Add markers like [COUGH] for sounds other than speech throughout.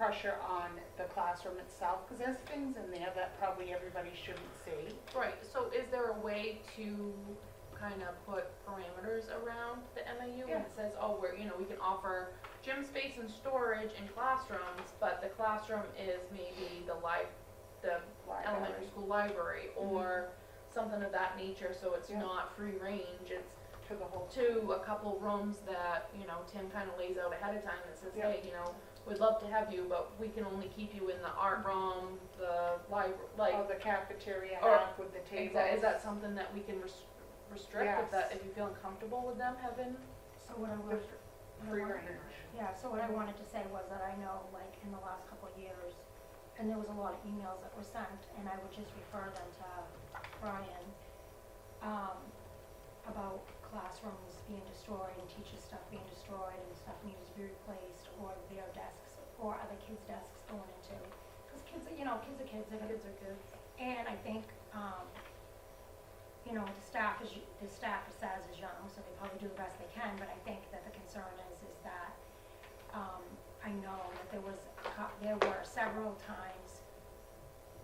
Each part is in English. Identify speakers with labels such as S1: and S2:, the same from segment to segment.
S1: pressure on the classroom itself, because there's things in there that probably everybody shouldn't see.
S2: Right, so is there a way to kind of put parameters around the MAU when
S1: Yeah.
S2: it says, oh, we're, you know, we can offer gym space and storage in classrooms, but the classroom is maybe the li- the
S1: Library
S2: elementary
S1: Mm-hmm.
S2: school library or something of that nature, so it's
S1: Yeah.
S2: not free range, it's
S1: um, to the whole,
S2: to a couple rooms that, you know, Tim kind of lays out ahead of time and says,
S1: Yeah.
S2: hey, you know, we'd love to have you, but we can only keep you in the art room, the library, like,
S1: or oh, the cafeteria
S2: Or-
S1: half with the
S2: is
S1: tables.
S2: that, is that something that we can res- restrict if that,
S1: Yes.
S2: if you feel uncomfortable with them having?
S3: So what I
S1: The
S3: was.
S1: Free
S3: what I
S1: range.
S3: wanted- Yeah, so what I wanted to say was that I know, like, in the last couple of years, and there was a lot of emails that were sent, and I would just refer them to Brian, um, about classrooms being destroyed and teacher stuff being destroyed and stuff needs to be replaced, or their desks, or other kids' desks going into. Because kids, are- you know, kids are kids, they're gonna
S2: are good.
S3: and I think, um, you know, the staff is, the staff is as is young, so they probably do the best they can, but I think that the concern is, is that, um, I know that there was, a cou- there were several times,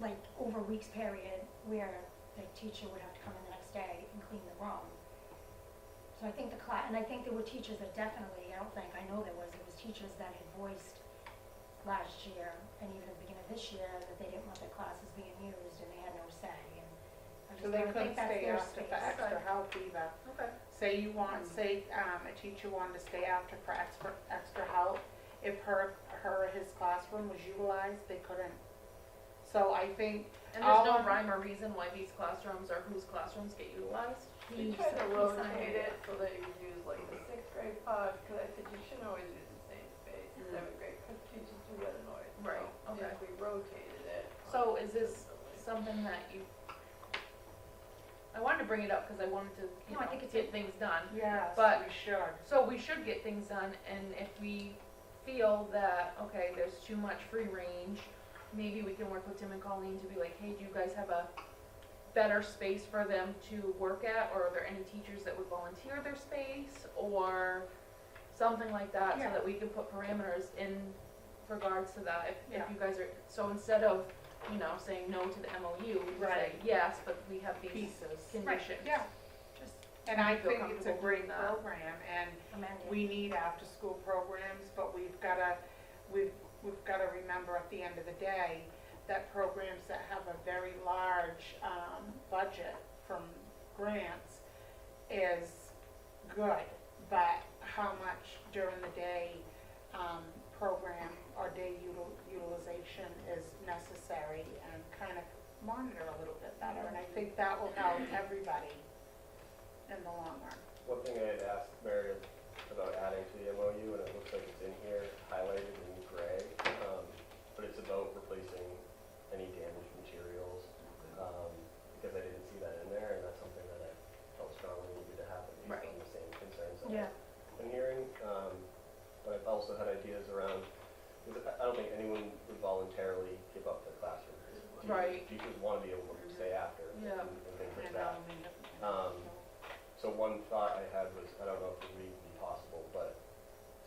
S3: like, over weeks period, where the teacher would have to come in the next day and clean the room. So I think the class, and I think there were teachers that definitely, I don't think, I know there was, there was teachers that had voiced last year and even at the beginning of this year that they didn't want their classes being used and they had no say and I just
S1: So they
S3: don't
S1: couldn't
S3: think that's
S1: stay
S3: their
S1: after
S3: space.
S1: for extra
S2: Right.
S1: help either.
S2: Okay.
S1: Say you
S2: Hmm.
S1: want, say, um, a teacher wanted to stay after for extra, extra help, if her, her, or his classroom was utilized, they couldn't. So I think
S2: And there's
S1: All-
S2: no rhyme or reason why these classrooms or whose clarossrooms get utilized?
S4: We
S3: He
S4: tried
S3: said-
S4: to
S3: he
S4: rotate
S3: said-
S4: it so that you use like the sixth grade pod, because I said you shouldn't always use the same space in
S2: Mm.
S4: seventh grade, because teachers do get annoyed.
S2: Right,
S4: So
S2: okay.
S4: If we rotated it.
S2: So is this
S4: consistently.
S2: something that you, I wanted to bring it up because I wanted to, you
S3: No, I think
S2: know,
S3: it's
S2: get things done.
S1: Yes,
S2: But-
S1: we should.
S2: So we should get things done, and if we feel that, okay, there's too much free range, maybe we can work with Tim and Colleen to be like, hey, do you guys have a better space for them to work at, or are there any teachers that would volunteer their space, or something like that, so
S1: Yeah.
S2: that we can put parameters in regards to that, if, if
S1: Yeah.
S2: you guys are, so instead of, you know, saying no to the MOU, we say,
S1: Right.
S2: yes, but we have these
S1: Pieces.
S2: conditions.
S1: Yeah,
S3: Just
S1: and I
S2: You feel
S1: think it's a
S2: comfortable
S1: great
S2: doing that.
S1: program, and
S3: amend it.
S1: we need after-school programs, but we've gotta, we've, we've gotta remember at the end of the day that programs that have a very large, um, budget from grants is good, but how much during the day, um, program or day util- utilization is necessary and kind of monitor a little bit better, and I think that will help everybody in the long run.
S5: One thing I had asked Mary is about adding to the MOU, and it looks like it's in here highlighted in gray, um, but it's about replacing any damaged materials, um, because I didn't see that in there, and that's something that I felt strongly needed to happen based on
S2: Right.
S5: the same concerns that
S3: Yeah,
S5: I've been hearing. Um, but I've also had ideas around, because I I don't think anyone would voluntarily give up their classroom. Teachers-
S2: Right.
S5: Teachers want to be able to stay after and
S2: Yeah.
S5: and things like
S1: And,
S5: that.
S1: um,
S5: Um, So one thought I had was, I don't know if it would be possible, but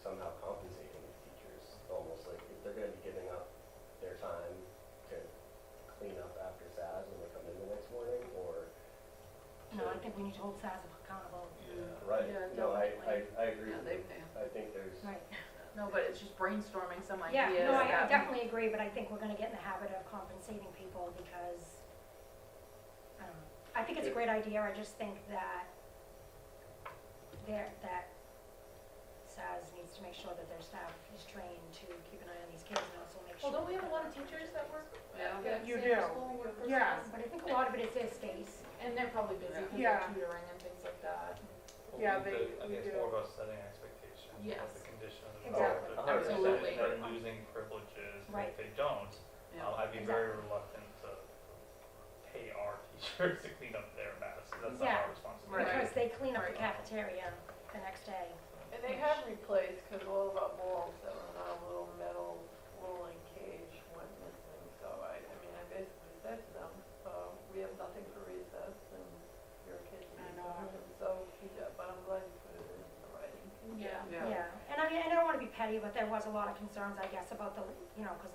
S5: somehow compensating the teachers, almost like if they're gonna be giving up their time to clean up after SAS when they come in the next morning, or.
S3: no, I think we need to hold SAS accountable.
S5: Right,
S2: Yeah,
S5: no, I, I,
S2: definitely.
S5: I agree
S4: Yeah,
S5: with
S4: they
S5: you.
S4: pay.
S5: I think there's,
S3: Right.
S2: No, but it's just brainstorming some
S3: Yeah,
S2: ideas.
S3: no, I- I
S2: that-
S3: definitely agree, but I think we're gonna get in the habit of compensating people because, I don't know. I think it's a great idea, I just think that there, that SAS needs to make sure that their staff is trained to keep an eye on these kids and also make sure.
S2: Well, don't we have a lot of teachers that work?
S4: Yeah.
S2: at
S1: You
S2: same
S1: do.
S2: school, work for
S1: Yeah.
S2: schools?
S3: But I think a lot of it is their space.
S2: And they're probably busy because
S1: Yeah.
S2: they're tutoring and things like that.
S1: Yeah,
S6: Well, we
S1: they-
S6: did- I
S1: we
S6: think
S1: do.
S6: it's more about setting expectations,
S2: Yes.
S6: what the condition of the
S3: Exactly.
S6: product,
S5: Hundred
S6: if
S2: percent.
S6: they're- if
S3: Absolutely.
S6: they're losing privileges, and
S3: Right.
S6: if they don't,
S4: Yeah.
S6: um, I'd be very reluctant to pay our [LAUGHS] teachers to clean up their mess, that's not
S3: Yeah.
S6: our responsibility.
S2: Right.
S3: Because they clean up the
S2: Right.
S3: cafeteria the next day.
S4: And they have replaced, because all of our balls that were in our little metal rolling cage went missing, so I, I mean, I basically said to them, uh, we have nothing for recess, and your kids
S1: I
S4: need
S1: know.
S4: something, so, yeah, but I'm glad you put it in the writing.
S2: Yeah.
S3: Yeah, and I mean, I don't wanna be petty, but there was a lot of concerns, I guess, about the, you know, because